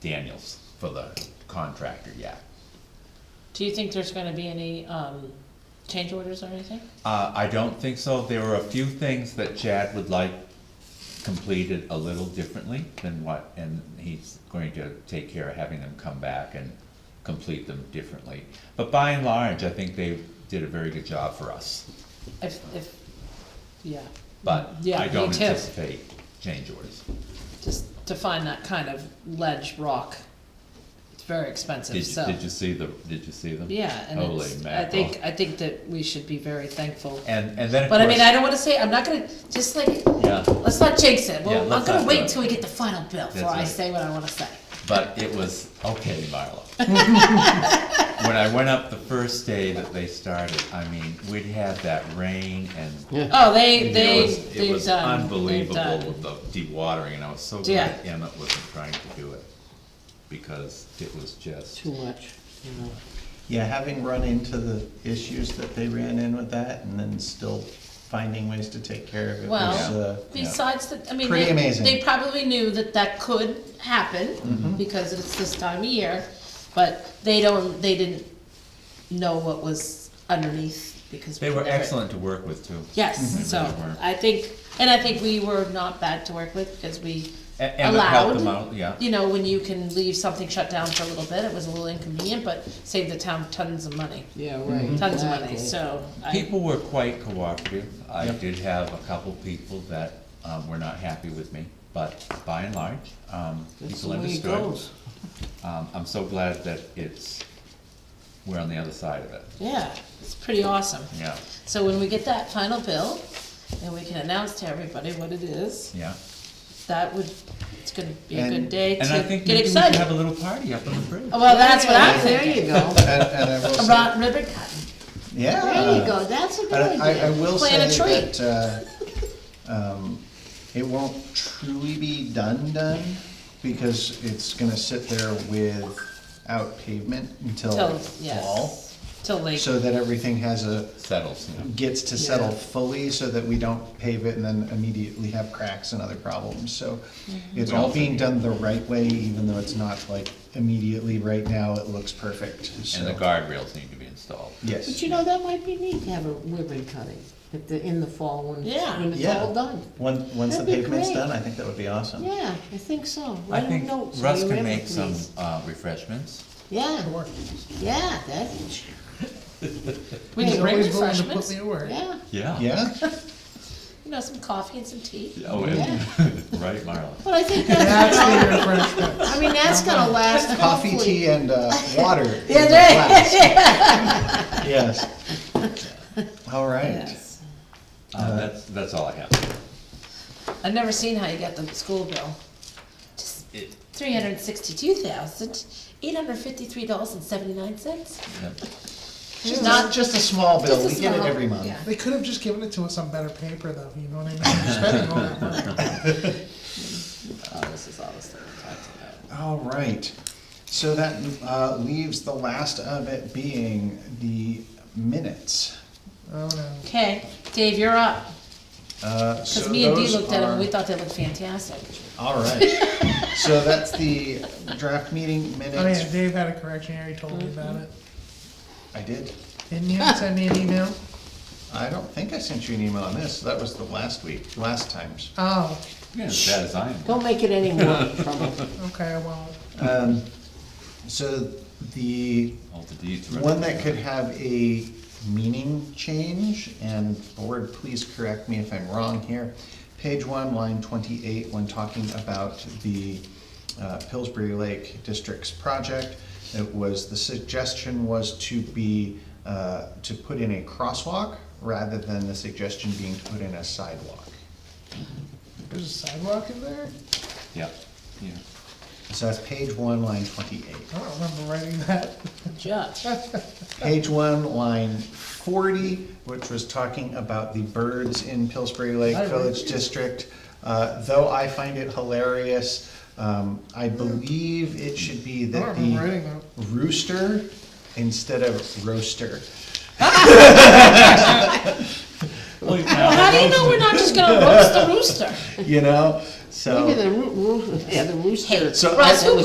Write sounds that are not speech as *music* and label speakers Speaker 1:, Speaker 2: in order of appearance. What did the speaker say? Speaker 1: Daniels for the contractor, yeah.
Speaker 2: Do you think there's gonna be any, um, change orders or anything?
Speaker 1: Uh, I don't think so. There were a few things that Chad would like completed a little differently than what, and he's going to take care of having them come back and complete them differently. But by and large, I think they did a very good job for us,
Speaker 2: If, if, yeah.
Speaker 1: but
Speaker 2: Yeah,
Speaker 1: I don't
Speaker 2: me too.
Speaker 1: anticipate change orders.
Speaker 2: Just to find that kind of ledge rock, it's very expensive,
Speaker 1: Did you,
Speaker 2: so.
Speaker 1: did you see the, did you see them?
Speaker 2: Yeah, and
Speaker 1: Holy
Speaker 2: it's, I
Speaker 1: mackerel.
Speaker 2: think, I think that we should be very thankful.
Speaker 1: And, and then of
Speaker 2: But I mean, I
Speaker 1: course,
Speaker 2: don't wanna say, I'm not gonna, just like,
Speaker 1: yeah,
Speaker 2: let's not jinx it,
Speaker 1: Yeah,
Speaker 2: well, I'm
Speaker 1: let's
Speaker 2: gonna
Speaker 1: not do
Speaker 2: wait
Speaker 1: it.
Speaker 2: till we get the final bill before
Speaker 1: That's
Speaker 2: I
Speaker 1: right.
Speaker 2: say what I wanna say.
Speaker 1: but it was, okay,
Speaker 2: *laughs*
Speaker 1: Marla. When I went up the first day that they started, I mean, we'd had that rain and
Speaker 3: Yeah.
Speaker 2: Oh, they,
Speaker 1: It
Speaker 2: they,
Speaker 1: was- It
Speaker 2: they've
Speaker 1: was
Speaker 2: done, they've
Speaker 1: unbelievable
Speaker 2: done.
Speaker 1: with the dewatering, and I was so
Speaker 2: Yeah.
Speaker 1: glad Emmett wasn't trying to do it, because it was just,
Speaker 3: too much, you know.
Speaker 4: Yeah, having run into the issues that they ran in with that and then still finding ways to take care of it was, uh,
Speaker 2: Well, besides that, I mean,
Speaker 4: Pretty
Speaker 2: they,
Speaker 4: amazing. Mm-hmm.
Speaker 2: they probably knew that that could happen because it's this time of year, but they don't, they didn't know what was underneath because.
Speaker 1: they
Speaker 2: we
Speaker 1: were
Speaker 2: never-
Speaker 1: excellent to work with too.
Speaker 4: Mm-hmm.
Speaker 2: Yes,
Speaker 1: They
Speaker 2: so
Speaker 1: really were.
Speaker 2: I think, and I think we were not bad to work with because we
Speaker 1: E- Emmett helped them
Speaker 2: allowed.
Speaker 1: out, yeah,
Speaker 2: You know, when you can leave something shut down for a little bit, it was a little inconvenient, but saved the town tons of money,
Speaker 3: Yeah, right.
Speaker 2: tons of money,
Speaker 3: Mm-hmm. exactly.
Speaker 2: so. I-
Speaker 1: people were quite cooperative, I did have a couple people that, um, were not happy with me, but by and large, um,
Speaker 3: That's the
Speaker 1: people
Speaker 3: way it
Speaker 1: understood.
Speaker 3: goes.
Speaker 1: Um, I'm so glad that it's, we're on the other side of it,
Speaker 2: Yeah, it's pretty awesome.
Speaker 1: yeah,
Speaker 2: So when we get that final bill, and we can announce to everybody what it is,
Speaker 1: yeah.
Speaker 2: that would, it's gonna be a good
Speaker 4: And-
Speaker 2: day
Speaker 1: And I
Speaker 2: to
Speaker 1: think
Speaker 2: get
Speaker 1: maybe we should have
Speaker 2: excited.
Speaker 1: a little party up on the bridge.
Speaker 2: Oh, Well, that's what I'm
Speaker 3: Yeah,
Speaker 2: thinking.
Speaker 3: There you go,
Speaker 4: And, and I will say,
Speaker 2: Rod ribbon cutting,
Speaker 4: yeah.
Speaker 3: there you go, that's a good
Speaker 4: And I, I
Speaker 3: idea.
Speaker 4: will say
Speaker 2: Plant a
Speaker 4: that, uh, um, it won't truly be done done because it's gonna sit there without pavement until
Speaker 2: till,
Speaker 4: fall.
Speaker 2: yes, till late,
Speaker 4: Oh, So that everything has a,
Speaker 1: Settles, you know.
Speaker 4: gets to settle
Speaker 3: Yeah.
Speaker 4: fully so that we don't pave it and then immediately have cracks and other problems, so
Speaker 3: Mm-hmm.
Speaker 4: it's all being done the right way, even though it's not like immediately right now, it looks perfect,
Speaker 1: And the
Speaker 4: so.
Speaker 1: guardrails need to be installed.
Speaker 3: But
Speaker 4: Yes,
Speaker 3: you know, that might be neat to have a ribbon cutting at the, in the fall when,
Speaker 2: Yeah.
Speaker 3: when it's
Speaker 4: Yeah.
Speaker 3: all done.
Speaker 4: once, once the
Speaker 3: That'd be
Speaker 4: pavement's
Speaker 3: great.
Speaker 4: done, I think that would be awesome.
Speaker 3: Yeah, I think so.
Speaker 1: I
Speaker 3: Write a
Speaker 1: think
Speaker 3: note, so
Speaker 1: Russ
Speaker 3: you
Speaker 1: can
Speaker 3: have it,
Speaker 1: make some
Speaker 3: please.
Speaker 1: uh, refreshments.
Speaker 3: Yeah, yeah, that's,
Speaker 2: we can bring
Speaker 5: Always willing to put
Speaker 2: refreshments,
Speaker 5: me to work.
Speaker 3: yeah.
Speaker 1: Yeah.
Speaker 3: *laughs*
Speaker 2: you
Speaker 4: Yeah,
Speaker 2: know, some coffee and some tea.
Speaker 1: Oh, and, *laughs* right, Marla.
Speaker 3: But I think that's,
Speaker 5: That's the refreshment.
Speaker 3: I mean, that's gonna last
Speaker 4: *laughs*
Speaker 3: hopefully.
Speaker 4: coffee, tea, and, uh,
Speaker 3: *laughs*
Speaker 4: water. in
Speaker 2: Yeah,
Speaker 4: the
Speaker 2: there-
Speaker 4: glass. Yes. All right,
Speaker 2: Yes.
Speaker 1: Uh, that's, that's all I have.
Speaker 2: I've never seen how you got the school bill. Just
Speaker 1: It-
Speaker 2: three hundred and sixty-two thousand, eight hundred and fifty-three dollars and seventy-nine cents.
Speaker 1: Yep.
Speaker 4: just,
Speaker 2: not-
Speaker 4: a- just a small bill,
Speaker 2: Just a
Speaker 4: we get it
Speaker 2: small-
Speaker 4: every month.
Speaker 2: yeah.
Speaker 5: They could have just given it to us on better paper, though. You know what I mean? We're spending all that money.
Speaker 2: Oh, this is all the stuff we talked about.
Speaker 4: All right, so that uh, leaves the last of it being the minutes.
Speaker 5: Oh no.
Speaker 2: Okay, Dave, you're up. Because
Speaker 4: Because
Speaker 2: me and Dee looked at them, we thought they looked fantastic.
Speaker 4: *laughs* All right, so that's the draft meeting
Speaker 5: Oh yeah,
Speaker 4: minutes.
Speaker 5: Dave had a correction here. He told me about it.
Speaker 4: I did.
Speaker 5: Didn't you send me an email?
Speaker 4: I don't think I sent you an email on this, that was the last week, last times.
Speaker 5: Oh,
Speaker 1: You're as bad as I am.
Speaker 3: Don't make it any *laughs* more trouble.
Speaker 5: okay. I won't.
Speaker 4: Um, So the
Speaker 1: All the deeds. are-
Speaker 4: One that could have a meaning change, and board, please correct me if I'm wrong here. Page one, line twenty-eight, when talking about the uh, Pillsbury Lake District's project, it was, the suggestion was to be, uh, to put in a crosswalk rather than the suggestion being to put in a sidewalk.
Speaker 5: There's a sidewalk in there.
Speaker 1: Yep, yeah.
Speaker 4: So that's page one, line twenty-eight.
Speaker 5: I don't remember writing that.
Speaker 2: Josh,
Speaker 4: Page one, line forty, which was talking about the birds in Pillsbury Lake Village District. Uh, Though I find it hilarious, um, I believe it should be
Speaker 5: I
Speaker 4: that
Speaker 5: don't remember writing
Speaker 4: the
Speaker 5: that.
Speaker 4: rooster instead of roaster.
Speaker 2: how do you know we're not just gonna roast the rooster?
Speaker 4: You know, so.
Speaker 3: Maybe the roo- roo- yeah, the rooster.
Speaker 4: So I-
Speaker 2: Russ, who